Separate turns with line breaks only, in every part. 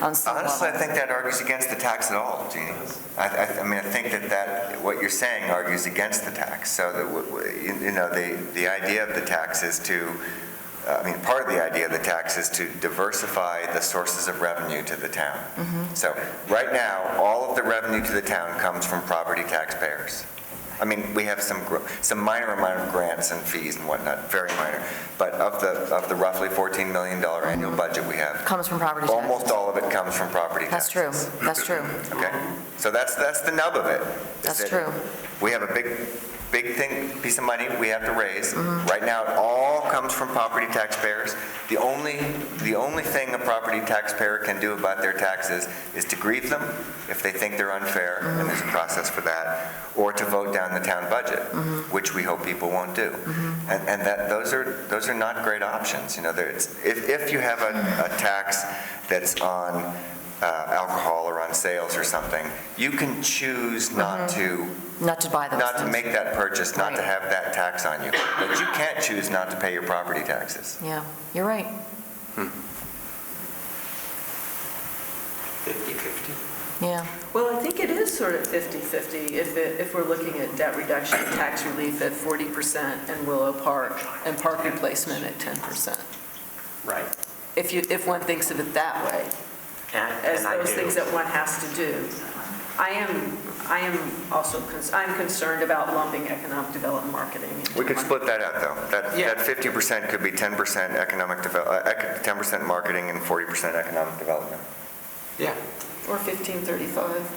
on some
Honestly, I
level.
think that argues against the tax at all, Jeannie. I, I, I mean, I think that that, what you're saying argues against the tax. So that, w- w- you you know, the, the idea of the tax is to, uh, I mean, part of the idea of the tax is to diversify the sources of revenue to the town. So right now, all of the revenue to the town comes from property taxpayers. I mean, we have some, gr- some minor amount of grants and fees and whatnot, very minor. But of the, of the roughly $14 million annual budget we have,
Comes from property taxes.
Almost all of it comes from property
That's
taxes.
true, that's true,
Okay, so that's, that's the nub of it. is
that's
that
true.
We have a big, big thing, piece of money we have to raise. Right now, it all comes from property taxpayers. The only, the only thing a property taxpayer can do about their taxes is to grieve them if they think they're unfair, and there's a process for that, or to vote down the town budget, which we hope people won't do. And, and that, those are, those are not great options, you know, there, it's, if, if you have a, a tax that's on uh, alcohol or on sales or something, you can choose not to,
Not to buy those
not to
things.
make that purchase, not to
Right.
have that tax on you. But you can't choose not to pay your property taxes.
Yeah, you're right.
50/50.
Yeah,
Well, I think it is sort of 50/50 if, it- if we're looking at debt reduction, tax relief at 40% and Willow Park and park replacement at 10%.
Right.
If you, if one thinks of it that way,
And
as
and I
those things
do.
that one has to do. I am, I am also, cons- I'm concerned about lumping economic development marketing. into
We could
one.
split that out, though. That,
Yeah.
that 50% could be 10% economic devel, uh, ec- 10% marketing and 40% economic development.
Yeah.
Or 1535.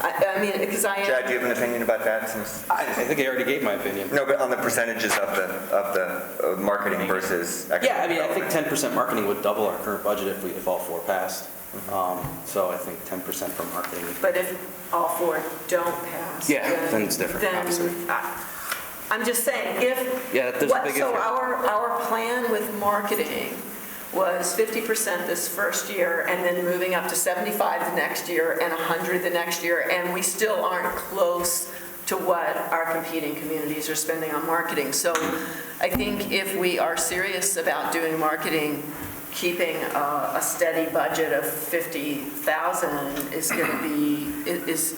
I, I mean, because I am.
Chad, do you have an opinion about that since?
I I think I already gave my opinion.
No, but on the percentages of the, of the uh, marketing versus economic
Yeah, I mean, I think
development.
10% marketing would double our current budget if we, if all four passed. Um, So I think 10% for marketing.
But if all four don't pass.
Yeah, then it's different,
then
obviously.
I- I'm just saying, if.
Yeah, there's a
what-
big
So
if.
our, our plan with marketing was 50% this first year, and then moving up to 75 the next year, and 100 the next year, and we still aren't close to what our competing communities are spending on marketing. So I think if we are serious about doing marketing, keeping a a steady budget of 50,000 is going to be, i- is,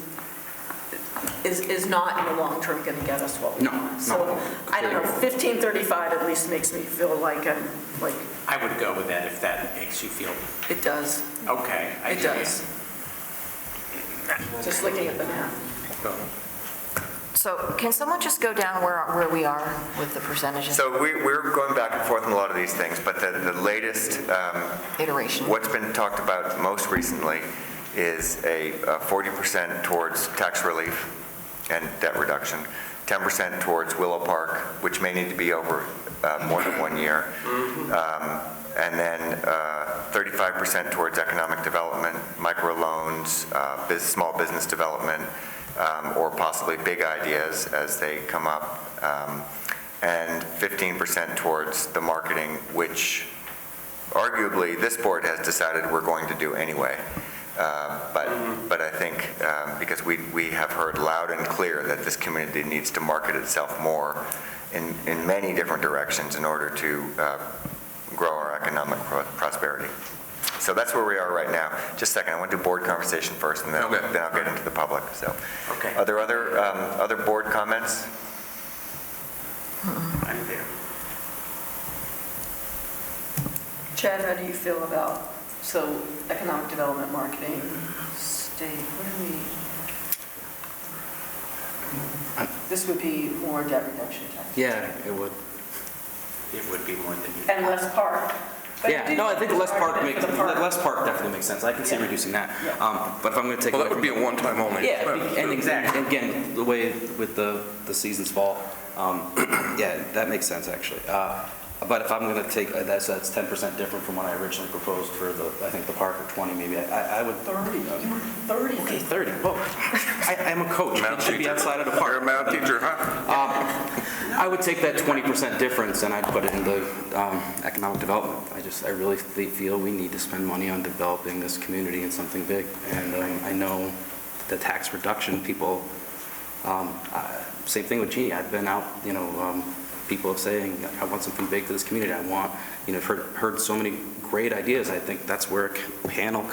is, is not in the long term going to get us what we
No,
want.
no,
So, I don't know,
completely.
1535 at least makes me feel like I'm, like,
I would go with that if that makes you feel,
it does,
okay. I
it
hear ya.
does. Just looking at the map.
Go.
so can someone just go down where, where we are with the percentages,
So we, we're going back and forth on a lot of these things, but the, the latest, um,
iteration?
What's been talked about most recently is a uh, 40% towards tax relief and debt reduction, 10% towards Willow Park, which may need to be over uh, more than one year, Um, and then uh, 35% towards economic development, microloans, uh, bus- small business development, um, or possibly big ideas as they come up, um, and 15% towards the marketing, which arguably this board has decided we're going to do anyway. Uh, But, but I think, um, because we, we have heard loud and clear that this community needs to market itself more in, in many different directions in order to uh, grow our economic pro- prosperity. So that's where we are right now. Just a second, I want to do board conversation first, and then,
Okay.
then I'll get into the public, so.
Okay.
Are there other, um, other board comments?
I'm there.
Chad, how do you feel about, so economic development, marketing, state, what do we? This would be more debt reduction tax.
Yeah, it would.
It would be more than you.
And less park. But I
Yeah,
do
no, I
think
think less
there's
park
argument
makes,
for the park.
less park definitely makes sense. I can see
Yeah.
reducing that.
Yeah.
Um, But if I'm going to take.
Well, that
away
would be a
from-
one-time only.
Yeah,
expense.
and
Exactly.
again- again, the way with the, the seasons fall, um, yeah, that makes sense, actually. Uh, But if I'm going to take, uh, that's, that's 10% different from what I originally proposed for the, I think the park at 20 maybe, I, I would.
30, you want 30.
Okay, 30, whoa. I, I'm a coach,
Mount
it should be
teacher.
outside of the
You're a
park. Um,
math teacher, huh?
I would take that 20% difference and I'd put it into um, economic development. I just, I really fe- feel we need to spend money on developing this community in something big. And um, I know the tax reduction people, um, I- same thing with Jeannie, I've been out, you know, um, people saying, I want something big for this community, I want, you know, I've heard, heard so many great ideas, I think that's where a c- panel